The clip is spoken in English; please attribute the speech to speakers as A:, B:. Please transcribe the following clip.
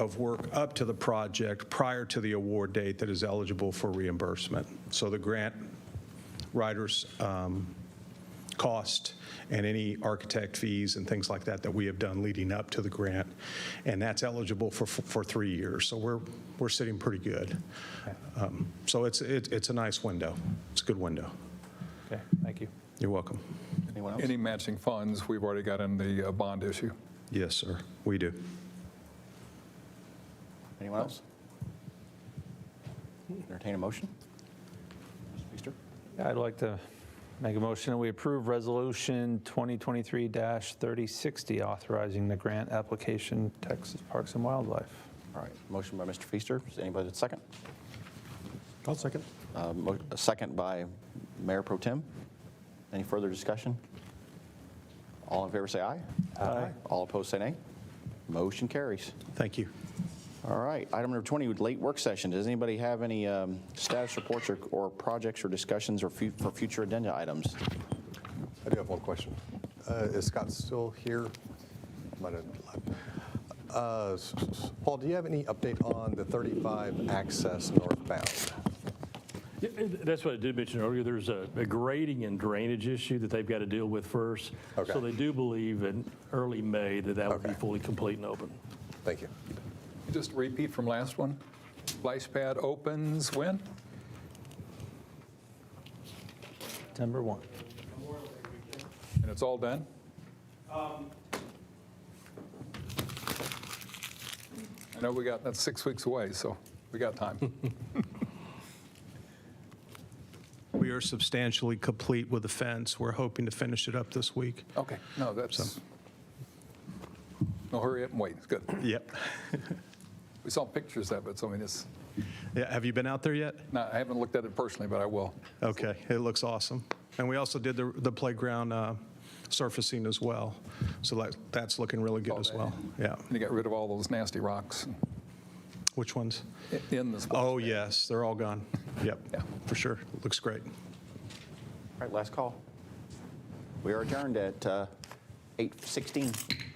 A: of work up to the project prior to the award date that is eligible for reimbursement. So the grant writer's um, cost and any architect fees and things like that that we have done leading up to the grant, and that's eligible for, for three years. So we're, we're sitting pretty good. Um, So it's, it- it's a nice window. It's a good window.
B: Okay, thank you.
A: You're welcome.
C: Anyone else?
D: Any matching funds, we've already got in the uh, bond issue.
A: Yes, sir, we do.
C: Anyone else? Entertain a motion? Mr. Feaster?
B: Yeah, I'd like to make a motion that we approve Resolution 2023-3060, authorizing the grant application Texas Parks and Wildlife.
C: All right, motion by Mr. Feaster. Is anybody that second?
E: I'll second.
C: Uh, mo- A second by Mayor Pro Tem. Any further discussion? All in favor, say aye. Aye. All opposed, say nay. Motion carries.
A: Thank you.
C: All right, item number 20, late work session. Does anybody have any um, status reports or- or projects or discussions or fu- for future agenda items?
F: I do have one question. Uh, Is Scott still here? Might have left. Uh, s- s- Paul, do you have any update on the 35 access northbound?
G: Yeah, and That's what I did mention earlier, there's a a grading and drainage issue that they've got to deal with first.
F: Okay.
G: So they do believe in early May that that would be
F: Okay.
G: fully complete and open.
F: Thank you.
D: Just a repeat from last one. Splash pad opens when?
B: September 1.
D: And it's all done? I know we got, that's six weeks away, so we got time.
A: We are substantially complete with the fence. We're hoping to finish it up this week.
D: Okay, no, that's, no, hurry up and wait, it's good.
A: Yep.
D: We saw pictures of it, so I mean, it's,
A: Yeah, Have you been out there yet?
D: no, I haven't looked at it personally, but I will.
A: Okay, it looks awesome. And we also did the the playground uh, surfacing as well. So that- that's looking really good as well. Yeah.
D: And you got rid of all those nasty rocks
A: Which ones?
D: in the splash.
A: Oh, yes, they're all gone. Yep,
D: Yeah.
A: for sure. Looks great.
C: All right, last call. We are adjourned at uh, 8:16.